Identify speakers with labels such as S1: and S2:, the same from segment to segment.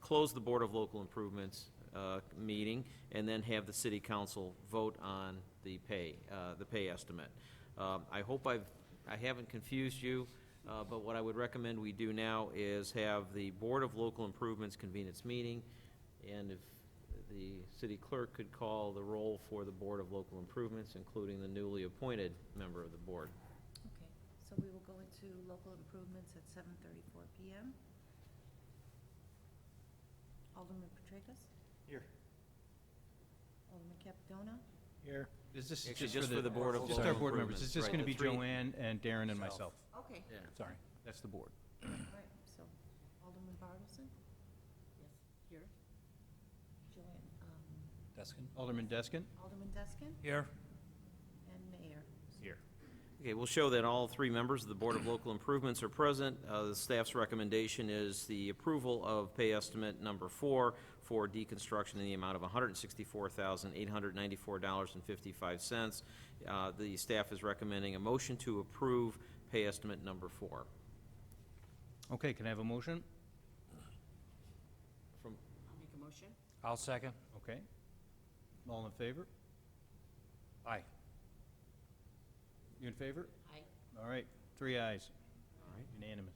S1: close the Board of Local Improvements uh, meeting, and then have the city council vote on the pay, uh, the pay estimate. Um, I hope I've, I haven't confused you, uh, but what I would recommend we do now is have the Board of Local Improvements convene its meeting, and if the city clerk could call the roll for the Board of Local Improvements, including the newly appointed member of the board.
S2: Okay, so we will go into local improvements at seven thirty-four PM. Alderman Petracas?
S3: Here.
S2: Alderman Capitano?
S3: Here. Is this
S1: Actually, just for the Board of
S3: Just
S1: Local
S3: our board
S1: Improvements,
S3: members. It's just
S1: right,
S3: gonna
S1: the
S3: be
S1: three-
S3: Joanne and Darren and myself.
S4: Myself.
S2: Okay,
S3: Sorry, that's the board.
S2: all right, so Alderman Bartleson? Yes. Here. Joanne, um,
S3: Deskin? Alderman Deskin?
S2: Alderman Deskin
S3: Here.
S2: and Mayor.
S3: Here.
S1: Okay, we'll show that all three members of the Board of Local Improvements are present. Uh, The staff's recommendation is the approval of pay estimate number four for deconstruction in the amount of $164,894.55. Uh, The staff is recommending a motion to approve pay estimate number four.
S3: Okay, can I have a motion?
S1: From,
S2: I'll make a motion.
S4: I'll second.
S3: Okay. All in favor?
S4: Aye.
S3: You in favor?
S2: Aye.
S3: All right, three ayes,
S1: all right.
S3: unanimous.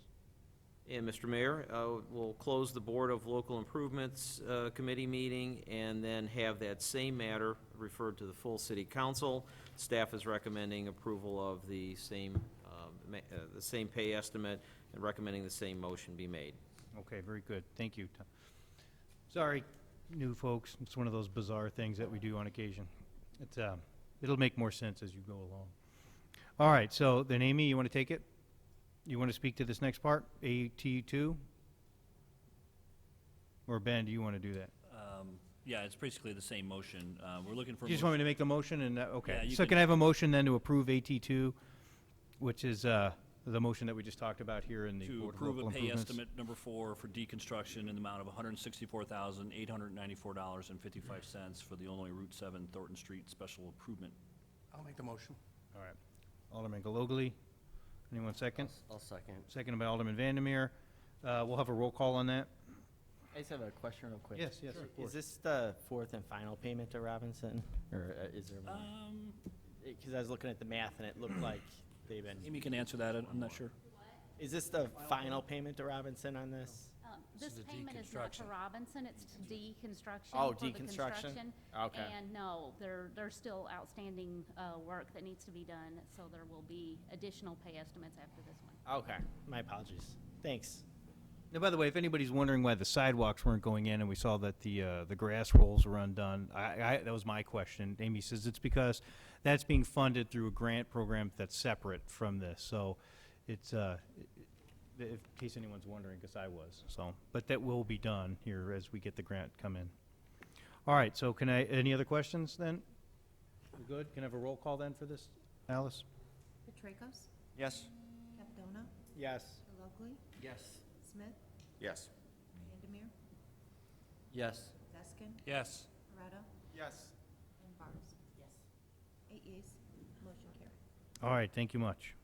S1: And Mr. Mayor, uh, we'll close the Board of Local Improvements uh, Committee meeting and then have that same matter referred to the full city council. Staff is recommending approval of the same, um, ma- uh, the same pay estimate and recommending the same motion be made.
S3: Okay, very good, thank you, Tom. Sorry, new folks, it's one of those bizarre things that we do on occasion. It's, um, it'll make more sense as you go along. All right, so then Amy, you want to take it? You want to speak to this next part, AT two? Or Ben, do you want to do that?
S5: Um, Yeah, it's basically the same motion. Uh, We're looking for.
S3: You just
S5: mo-
S3: want me to make the motion and, uh,
S5: Yeah,
S3: okay.
S5: you
S3: So
S5: can-
S3: can I have a motion then to approve AT two, which is, uh, the motion that we just talked about here in the
S5: To
S3: Board of
S5: approve
S3: Local
S5: a pay
S3: Improvements?
S5: estimate number four for deconstruction in the amount of $164,894.55 for the Illinois Route 7 Thornton Street Special Improvement.
S4: I'll make the motion.
S3: All right. Alderman Galogly, anyone second?
S6: I'll second.
S3: Seconded by Alderman Vandermeer. Uh, We'll have a roll call on that.
S6: I just have a question real quick.
S3: Yes, yes, of course.
S6: Is this the fourth and final payment to Robinson, or uh, is there more?
S5: Um,
S6: Because I was looking at the math and it looked like they've been,
S5: Amy can answer that, I'm not sure.
S6: is this the final payment to Robinson on this?
S7: Um,
S4: This
S7: This
S4: is a
S7: payment is not to
S4: deconstruction.
S7: Robinson, it's to deconstruction.
S6: Oh,
S7: for the
S6: deconstruction?
S7: construction.
S6: Okay.
S7: And no, there, there's still outstanding uh, work that needs to be done, so there will be additional pay estimates after this one.
S6: Okay, my apologies. Thanks.
S3: Now, by the way, if anybody's wondering why the sidewalks weren't going in and we saw that the, uh, the grass rolls were undone, I, I, that was my question. Amy says it's because that's being funded through a grant program that's separate from this. So it's, uh, i- i- if, in case anyone's wondering, because I was, so. But that will be done here as we get the grant come in. All right, so can I, any other questions then? We good? Can I have a roll call then for this, Alice?
S2: Petracas?
S4: Yes.
S2: Capitano?
S6: Yes.
S2: Locally?
S4: Yes.
S2: Smith?
S4: Yes.
S2: Vandermeer?
S6: Yes.
S2: Deskin?
S4: Yes.
S2: Parado?
S4: Yes.
S2: And Bartles? Yes. Eight yeas, motion carried.
S3: All right, thank you much.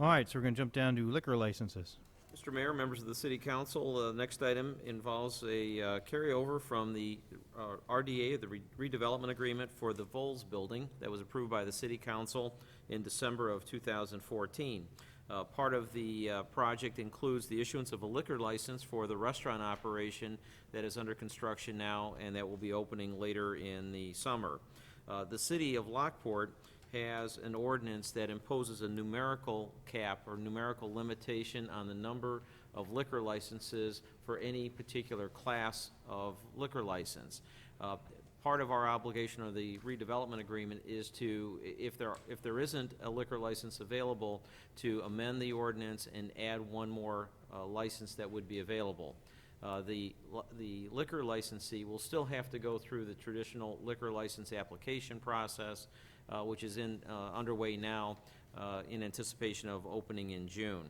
S3: All right, so we're going to jump down to liquor licenses.
S1: Mr. Mayor, members of the city council, the next item involves a uh, carryover from the uh, RDA, the redevelopment agreement for the Vols Building that was approved by the city council in December of 2014. Uh, Part of the uh, project includes the issuance of a liquor license for the restaurant operation that is under construction now and that will be opening later in the summer. Uh, The city of Lockport has an ordinance that imposes a numerical cap or numerical limitation on the number of liquor licenses for any particular class of liquor license. Uh, Part of our obligation of the redevelopment agreement is to, i- if there, if there isn't a liquor license available, to amend the ordinance and add one more uh, license that would be available. Uh, The li- the liquor licensee will still have to go through the traditional liquor license application process, uh, which is in, uh, underway now uh, in anticipation of opening in June.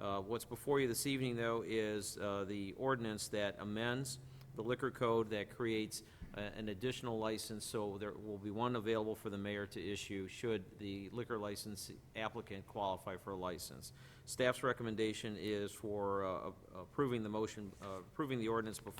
S1: Uh, What's before you this evening, though, is uh, the ordinance that amends the liquor code that creates a- an additional license, so there will be one available for the mayor to issue should the liquor license applicant qualify for a license. Staff's recommendation is for uh, approving the motion, uh, approving the ordinance before